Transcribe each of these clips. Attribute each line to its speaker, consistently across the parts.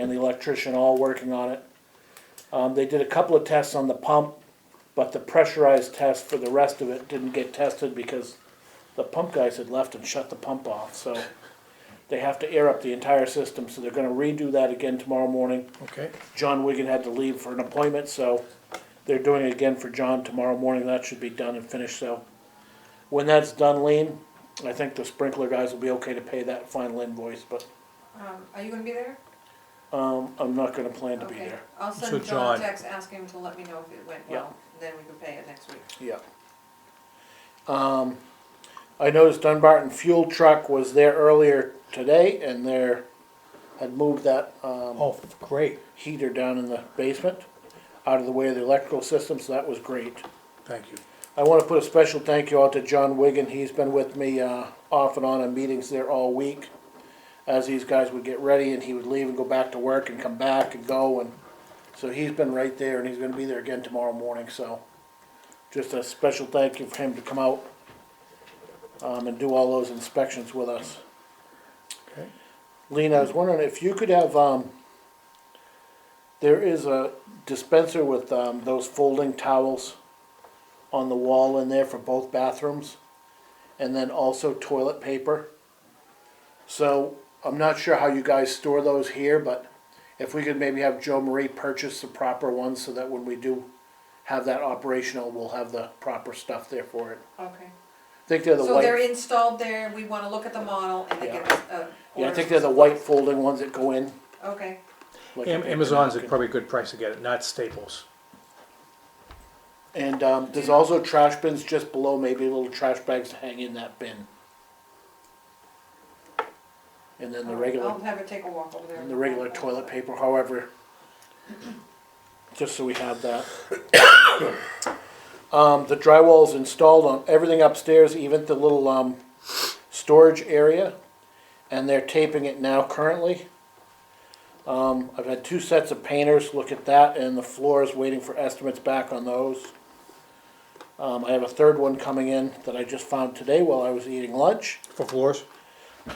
Speaker 1: and the electrician all working on it. Um, they did a couple of tests on the pump, but the pressurized test for the rest of it didn't get tested because the pump guys had left and shut the pump off, so they have to air up the entire system, so they're gonna redo that again tomorrow morning.
Speaker 2: Okay,
Speaker 1: John Wigan had to leave for an appointment, so they're doing it again for John tomorrow morning. That should be done and finished, so. When that's done, Lean, I think the sprinkler guys will be okay to pay that final invoice, but,
Speaker 3: Um, are you gonna be there?
Speaker 1: um, I'm not gonna plan to be
Speaker 3: Okay,
Speaker 1: there.
Speaker 3: I'll
Speaker 2: So
Speaker 3: send John
Speaker 2: John-
Speaker 3: a text, ask him to let me know if it went
Speaker 1: Yeah.
Speaker 3: well, and then we can pay it next week.
Speaker 1: Yeah. Um, I noticed Dunbarton Fuel Truck was there earlier today and they're, had moved that, um,
Speaker 2: oh, great,
Speaker 1: heater down in the basement, out of the way of the electrical system, so that was great.
Speaker 2: thank you.
Speaker 1: I want to put a special thank you out to John Wigan. He's been with me uh, off and on in meetings there all week. As these guys would get ready and he would leave and go back to work and come back and go and so he's been right there and he's going to be there again tomorrow morning. So just a special thank you for him to come out um, and do all those inspections with us.
Speaker 2: Okay,
Speaker 1: Lena, I was wondering if you could have, um, there is a dispenser with, um, those folding towels on the wall in there for both bathrooms, and then also toilet paper. So, I'm not sure how you guys store those here, but if we could maybe have Joe Marie purchase the proper ones so that when we do have that operational, we'll have the proper stuff there for it.
Speaker 3: Okay.
Speaker 1: I think they're the
Speaker 3: So they're
Speaker 1: white,
Speaker 3: installed there, we wanna look at the model and then
Speaker 1: Yeah.
Speaker 3: get a.
Speaker 1: yeah, I
Speaker 3: order.
Speaker 1: think they're the white folding ones that go in.
Speaker 3: Okay,
Speaker 1: like a
Speaker 2: Am-
Speaker 1: paper
Speaker 2: Amazon's
Speaker 1: napkin.
Speaker 2: probably a good price to get it, not Staples.
Speaker 1: And um, there's also trash bins just below, maybe little trash bags to hang in that bin. And then the regular,
Speaker 3: I'll have her take a walk over there.
Speaker 1: the regular toilet paper, however, just so we have that. Um, the drywall's installed on everything upstairs, even the little um, storage area, and they're taping it now currently. Um, I've had two sets of painters look at that, and the floor is waiting for estimates back on those. Um, I have a third one coming in that I just found today while I was eating lunch
Speaker 2: For floors?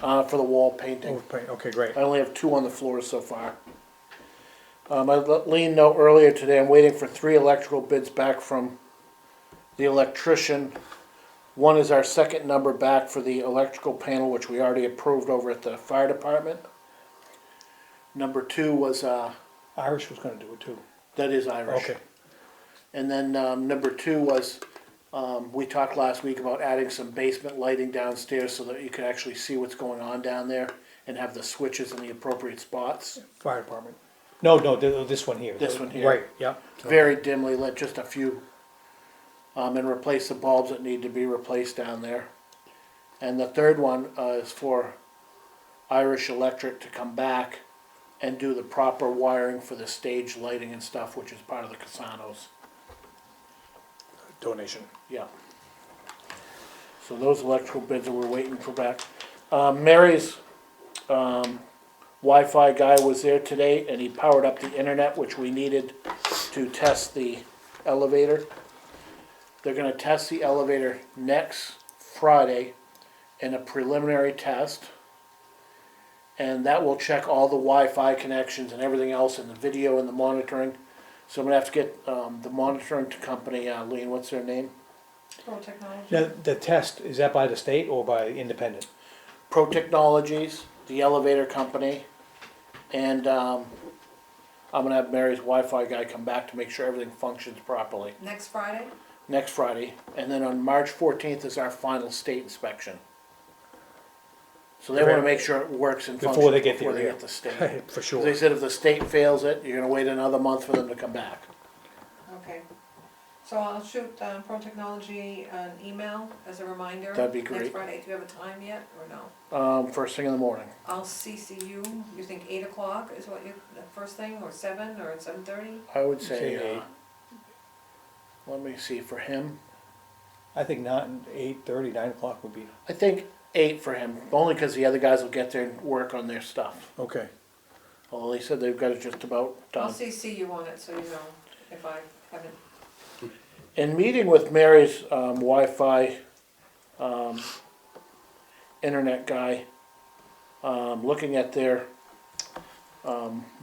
Speaker 1: uh, for the wall painting.
Speaker 2: Oh, paint, Okay, great.
Speaker 1: I only have two on the floor so far. Um, I let Lean know earlier today, I'm waiting for three electrical bids back from the electrician. One is our second number back for the electrical panel, which we already approved over at the fire department. Number two was, uh,
Speaker 2: Irish was gonna do it too.
Speaker 1: that is Irish.
Speaker 2: Okay,
Speaker 1: And then, um, number two was, um, we talked last week about adding some basement lighting downstairs so that you could actually see what's going on down there and have the switches in the appropriate spots.
Speaker 2: fire department. No, no, th- uh, this one here.
Speaker 1: This one here.
Speaker 2: Right, yeah.
Speaker 1: very dimly lit, just a few. Um, and replace the bulbs that need to be replaced down there. And the third one, uh, is for Irish Electric to come back and do the proper wiring for the stage lighting and stuff, which is part of the Casanos,
Speaker 2: Donation.
Speaker 1: yeah. So those electrical bids that we're waiting for back. Um, Mary's, um, Wi-Fi guy was there today and he powered up the internet, which we needed to test the elevator. They're gonna test the elevator next Friday in a preliminary test. And that will check all the Wi-Fi connections and everything else and the video and the monitoring. So I'm gonna have to get, um, the monitoring company, uh, Lean, what's their name?
Speaker 3: Pro technology.
Speaker 2: Now, the test, is that by the state or by independent?
Speaker 1: Pro Technologies, the elevator company, and um, I'm gonna have Mary's Wi-Fi guy come back to make sure everything functions properly
Speaker 3: Next Friday,
Speaker 1: next Friday, and then on March fourteenth is our final state inspection. So they wanna make sure it works and functions
Speaker 2: Before they get
Speaker 1: before
Speaker 2: there,
Speaker 1: they
Speaker 2: yeah.
Speaker 1: get the state.
Speaker 2: For
Speaker 1: They
Speaker 2: sure.
Speaker 1: said if the state fails it, you're gonna wait another month for them to come back.
Speaker 3: okay. So I'll shoot, um, Pro Technology an email as a reminder.
Speaker 1: That'd be
Speaker 3: Next
Speaker 1: great.
Speaker 3: Friday, do you have a time yet, or no?
Speaker 1: Um, first thing in the morning,
Speaker 3: I'll CC you, you think eight o'clock is what you, the first thing, or seven, or seven thirty?
Speaker 1: I would say,
Speaker 2: Say
Speaker 1: uh,
Speaker 2: eight.
Speaker 1: let me see, for him,
Speaker 2: I think not, eight thirty, nine o'clock would be,
Speaker 1: I think eight for him, only because the other guys will get there and work on their stuff.
Speaker 2: okay.
Speaker 1: Well, they said they've got it just about
Speaker 3: I'll
Speaker 1: done.
Speaker 3: CC you on it, so you know if I haven't,
Speaker 1: In meeting with Mary's um, Wi-Fi um, internet guy, um, looking at their um,